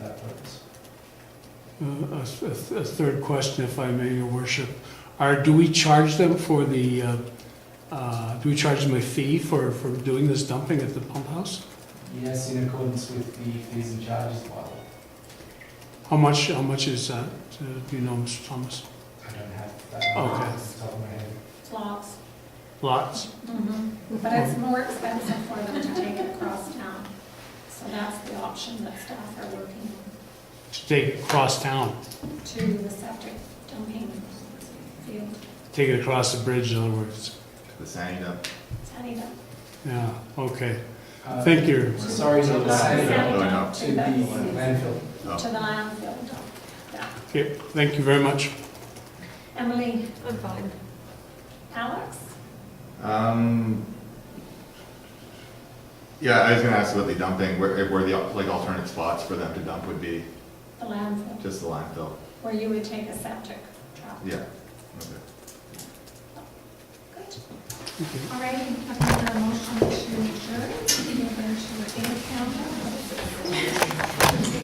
Uh, A a- a third question, if I may, your worship. Are, do we charge them for the, uh, uh, do we charge them a fee for, for doing this dumping at the pump house? Yes, in accordance with the fees and charges bylaw. How much, how much is that? Uh, Do you know, Mr. Thomas? I don't have that. off Okay. the top of my head. Lots. Lots? But it's more expensive for them to take it across town. So that's the option that staff are working To take it across town, on, to the septic dumping field. take it across the bridge, in other words. The sign up. Sunny dump. Yeah, okay. Uh, Thank you. Sorry, To no, the the sunny same No, no. dump, to to the the landfill. to the landfill dump. Yeah. Okay, thank you very much. Emily, I'm fine. Alex? Um, yeah, I was gonna ask about the dumping, where, where the, like, alternate spots for them to dump would be, The landfill, just the landfill, where you would take a septic trap. yeah. Okay. Good. All right, I've got a motion to adjourn.